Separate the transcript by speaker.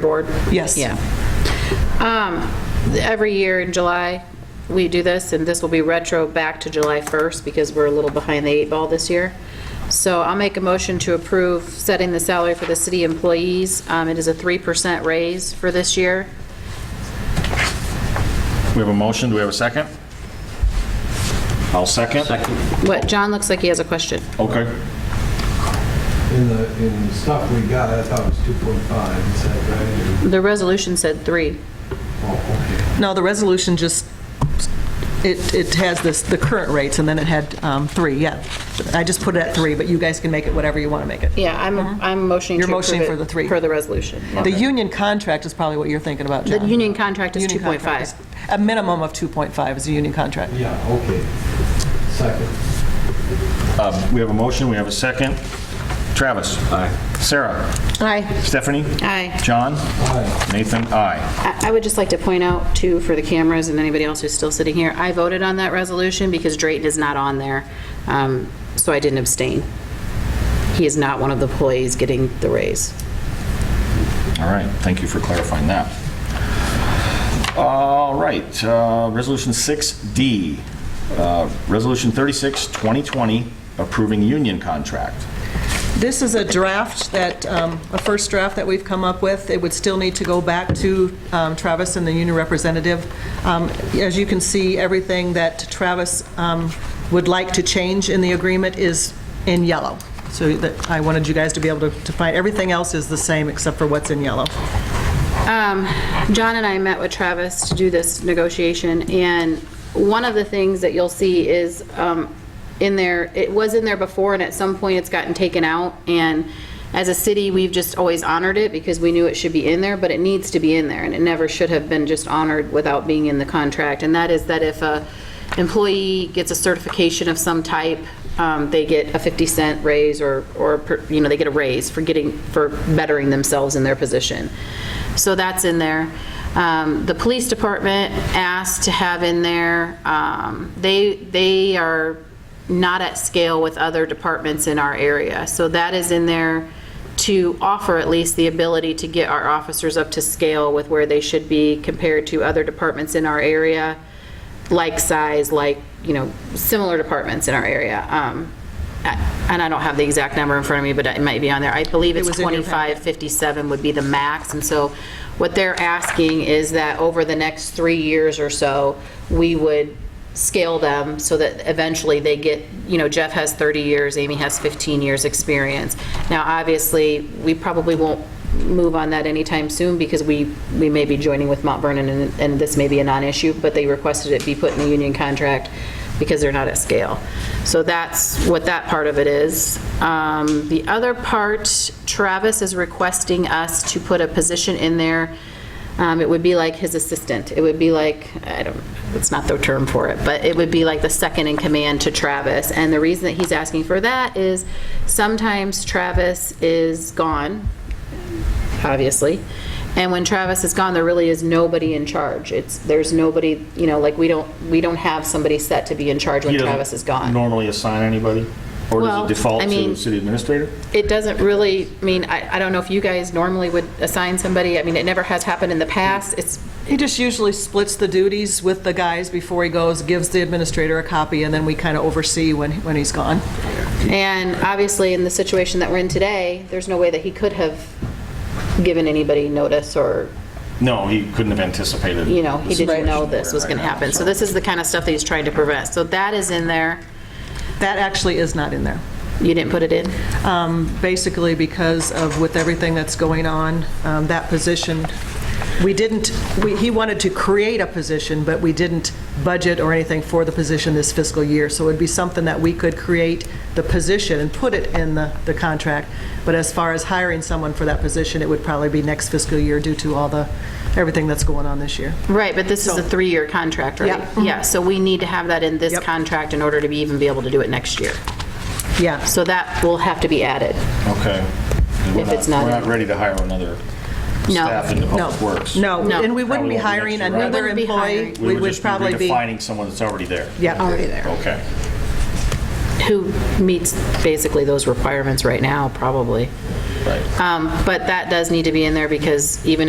Speaker 1: board?
Speaker 2: Yes.
Speaker 3: Yeah.
Speaker 4: Um, Every year in July, we do this, and this will be retro back to July 1st because we're a little behind the eight ball this year. So I'll make a motion to approve setting the salary for the city employees. Um, It is a 3% raise for this year.
Speaker 5: We have a motion, do we have a second? I'll second. Second.
Speaker 4: What, John looks like he has a question.
Speaker 5: Okay.
Speaker 6: In the, in the stuff we got, I thought it was 2.5, is that right?
Speaker 4: The resolution said three.
Speaker 6: Oh,
Speaker 2: No, the resolution just, it, it has this, the current rates, and then it had um, three, yeah. I just put it at three, but you guys can make it whatever you want to make it.
Speaker 4: Yeah, I'm, I'm motioning to
Speaker 2: You're
Speaker 4: approve
Speaker 2: motioning
Speaker 4: it
Speaker 2: for the three.
Speaker 4: Per the resolution.
Speaker 2: The union contract is probably what you're thinking about,
Speaker 4: The
Speaker 2: John.
Speaker 4: union contract is
Speaker 2: Union contract
Speaker 4: 2.5.
Speaker 2: is- A minimum of 2.5 is a union contract.
Speaker 6: okay. Yeah, okay. Second.
Speaker 5: We have a motion, we have a second. Travis? Aye. Sarah?
Speaker 4: Aye.
Speaker 5: Stephanie?
Speaker 4: Aye.
Speaker 5: John?
Speaker 6: Aye.
Speaker 5: Nathan? Aye.
Speaker 4: I I would just like to point out, too, for the cameras and anybody else who's still sitting here, I voted on that resolution because Drayton is not on there, um, so I didn't abstain. He is not one of the employees getting the raise.
Speaker 5: All right, thank you for clarifying that. All right, uh, Resolution 6D, uh, Resolution 36, 2020, approving union contract.
Speaker 2: This is a draft that, um, a first draft that we've come up with. It would still need to go back to um, Travis and the union representative. Um, As you can see, everything that Travis um, would like to change in the agreement is in yellow. So that, I wanted you guys to be able to to find, everything else is the same except for what's in yellow.
Speaker 4: Um, John and I met with Travis to do this negotiation, and one of the things that you'll see is um, in there, it was in there before, and at some point, it's gotten taken out, and as a city, we've just always honored it because we knew it should be in there, but it needs to be in there, and it never should have been just honored without being in the contract, and that is that if a employee gets a certification of some type, um, they get a 50 cent raise or, or, per- you know, they get a raise for getting, for bettering themselves in their position. So that's in there. Um, The police department asked to have in there, um, they, they are not at scale with other departments in our area. So that is in there to offer at least the ability to get our officers up to scale with where they should be compared to other departments in our area like size, like, you know, similar departments in our area. Um, I- And I don't have the exact number in front of me, but it might be on there. I believe it's
Speaker 2: was in your
Speaker 4: 2557 would be the max. And so what they're asking is that over the next three years or so, we would scale them so that eventually they get, you know, Jeff has 30 years, Amy has 15 years' experience. Now, obviously, we probably won't move on that anytime soon because we, we may be joining with Mount Vernon and, and this may be a non-issue, but they requested it be put in the union contract because they're not at scale. So that's what that part of it is. Um, The other part, Travis is requesting us to put a position in there. Um, It would be like his assistant. It would be like, I don't, it's not the term for it, but it would be like the second in command to Travis. And the reason that he's asking for that is sometimes Travis is gone obviously. And when Travis is gone, there really is nobody in charge. It's, there's nobody, you know, like, we don't, we don't have somebody set to be in charge when
Speaker 5: He doesn't
Speaker 4: Travis is gone.
Speaker 5: Normally assign anybody? Or
Speaker 4: Well,
Speaker 5: does it default
Speaker 4: I mean-
Speaker 5: to city administrator?
Speaker 4: It doesn't really, I mean, I, I don't know if you guys normally would assign somebody. I mean, it never has happened in the past. It's,
Speaker 2: He just usually splits the duties with the guys before he goes, gives the administrator a copy, and then we kind of oversee when, when he's gone.
Speaker 4: and obviously, in the situation that we're in today, there's no way that he could have given anybody notice or,
Speaker 5: No, he couldn't have anticipated.
Speaker 4: you know,
Speaker 5: the
Speaker 4: he didn't know
Speaker 5: situation
Speaker 4: this was
Speaker 5: we're in
Speaker 4: going to
Speaker 5: right now,
Speaker 4: happen. So this is the kind of stuff that he's trying to prevent. So that is in there.
Speaker 2: That actually is not in there.
Speaker 4: You didn't put it in?
Speaker 2: basically because of with everything that's going on, um, that position, we didn't, we- he wanted to create a position, but we didn't budget or anything for the position this fiscal year. So it'd be something that we could create the position and put it in the, the contract. But as far as hiring someone for that position, it would probably be next fiscal year due to all the, everything that's going on this year.
Speaker 4: Right, but this is a three-year contract, right?
Speaker 2: Yeah.
Speaker 4: Yeah, so we need to have that in this
Speaker 2: Yep.
Speaker 4: contract in order to be, even be able to do it next year.
Speaker 2: Yeah.
Speaker 4: So that will have to be added.
Speaker 5: Okay. We're
Speaker 4: If it's not-
Speaker 5: We're not ready to hire another
Speaker 4: No.
Speaker 5: staff into Public
Speaker 2: No.
Speaker 5: Works.
Speaker 2: No,
Speaker 4: No.
Speaker 2: and we wouldn't
Speaker 5: Probably
Speaker 2: be
Speaker 5: won't be
Speaker 2: hiring
Speaker 5: next year, right?
Speaker 4: We
Speaker 2: another
Speaker 4: wouldn't be
Speaker 2: employee.
Speaker 4: hiring.
Speaker 2: We would
Speaker 5: just be
Speaker 2: probably be.
Speaker 5: Redefining someone that's already there.
Speaker 2: Yeah,
Speaker 4: Already there.
Speaker 5: Okay.
Speaker 4: Who meets basically those requirements right now, probably.
Speaker 5: Right.
Speaker 4: Um, But that does need to be in there because even if